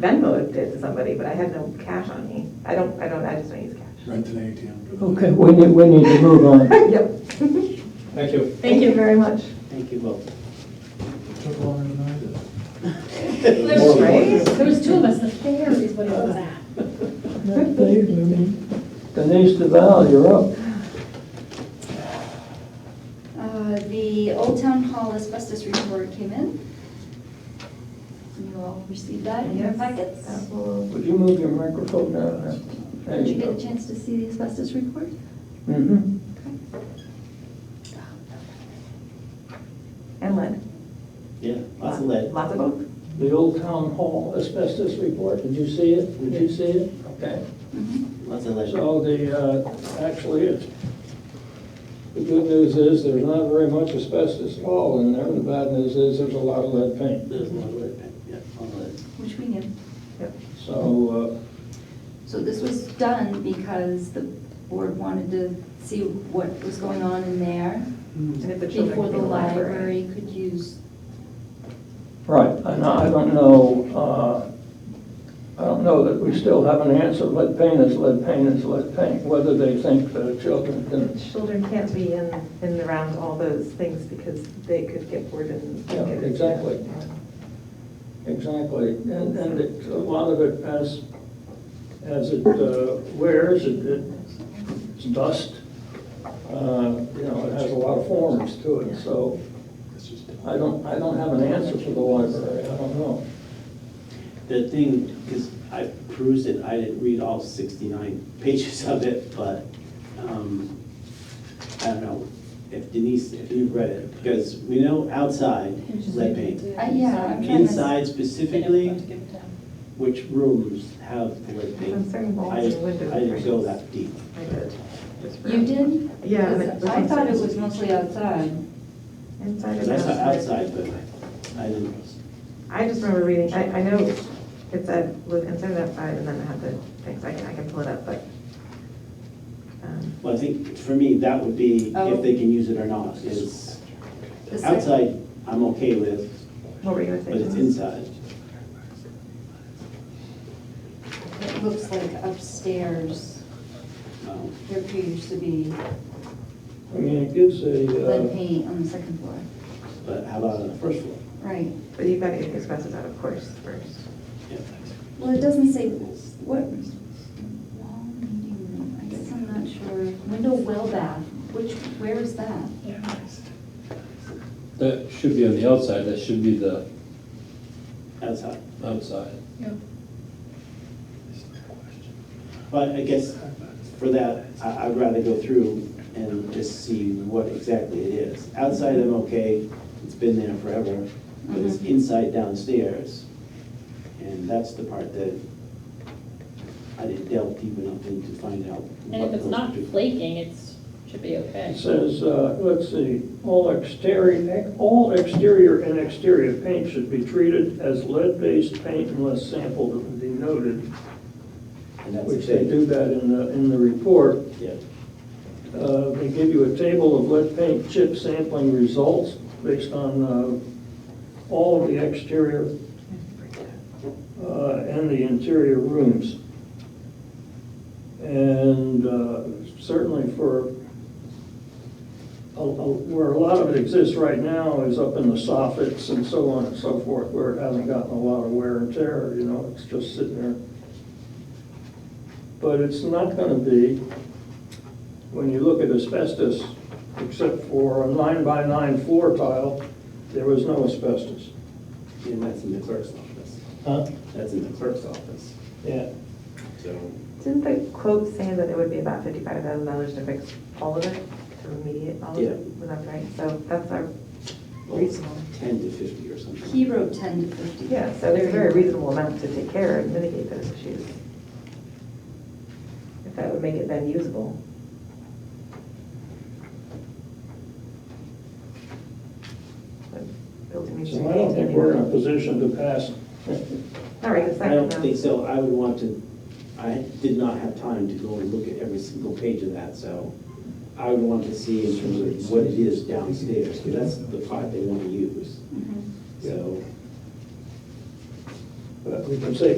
Venmo it to somebody, but I had no cash on me. I don't, I don't, I just don't use cash. Rent an ATM. Okay, we need, we need to move on. Yep. Thank you. Thank you very much. Thank you both. Took longer than I did. There's- Right? There was two of us, the fair is what it was at. Denise DeVal, you're up. Uh, The Old Town Hall asbestos report came in. You all received that in your Yes. Oh. packets? Would you move your microphone down? there? Did you get a chance to see the asbestos report? Mhm. And lead. Yeah, lots of lead. Lots of both. The Old Town Hall asbestos report, did you see it? Did you see it? Okay. Lots of lead. So the, uh, actually, it's, the good news is there's not very much asbestos at all in there. The bad news is there's a lot of lead paint. There's a lot of lead, yeah, a lot of lead. Which we knew. So, uh, So this was done because the board wanted to see what was going on in there And if the children before could the be in library could use. uh, right, and I don't know, uh, I don't know that we still have an answer. Lead paint is lead paint is lead paint, whether they think the children can Children can't be in, in around all those things because they could get bored and. Yeah, exactly. Exactly, and, and it, a lot of it as, as it uh, wears, it, it- it's dust, uh, you know, it has a lot of forms to it, so It's just. I don't, I don't have an answer for the library, I don't know. The thing, because I perused it, I didn't read all 69 pages of it, but um, I don't know if Denise, if you've read it, because we know outside lead paint. Uh, Yeah, I'm trying to. Inside specifically, which rooms have the lead I'm paint? sorry, walls I and windows. I didn't go that deep. I did. just for- You did? Yeah. and it Because was I thought it inside- was mostly outside. Inside Because and I saw outside. outside, but I didn't. I just remember reading, I, I know it said, was inside and outside, and then it had the things, I can, I can pull it up, but. um, Well, I think for me, that would be Oh. if they can use it or not, is The sec- outside, I'm okay with, What were you gonna say? but it's John? inside. It looks like upstairs, um, there appears to be I mean, it gives lead a, uh, paint on the second floor. But how about on the first floor? Right. But you've got to get the expenses out, of course, first. Yeah. Well, it doesn't say what, wall meeting room, I guess I'm not sure. Window well bath, which, where is that? That should be on the outside, that should be the Outside. outside. But I guess for that, I, I'd rather go through and just see what exactly it is. Outside, I'm okay, it's been there forever, but it's Mm-hmm. Mhm. inside downstairs. And that's the part that I didn't delve deep enough into to find out. And if what it's those not do. flaking, it's, should be okay. it says, uh, let's see, all exterior, all exterior and exterior paint should be treated as lead-based paint unless sampled and denoted And that's the which they thing, do that in the, in the report. yeah. Uh, They give you a table of lead paint chip sampling results based on uh, all of the exterior uh, and the interior rooms. And uh, certainly for, a- a- where a lot of it exists right now is up in the soffits and so on and so forth, where it hasn't gotten a lot of wear and tear, you know, it's just sitting there. But it's not gonna be, when you look at asbestos, except for a nine-by-nine floor tile, there was no asbestos. And that's in the clerk's office. Huh? That's in the clerk's office, Yeah. so. Didn't the quote say that it would be about fifty-five thousand dollars to fix all of it, to remediate all of Yeah. it? Was that right? So that's our well, it's reasonable. Ten to fifty or something. He wrote ten to fifty. Yeah, so it's a very reasonable amount to take care of, mitigate those issues. If that would make it then usable. But building So I don't think we're in a position to pass. All right, it's not. I don't think so, I would want to, I did not have time to go and look at every single page of that, so I would want to see in terms of what it is downstairs, because that's the part Mm-hmm. they want to use, Mhm. so. But we can say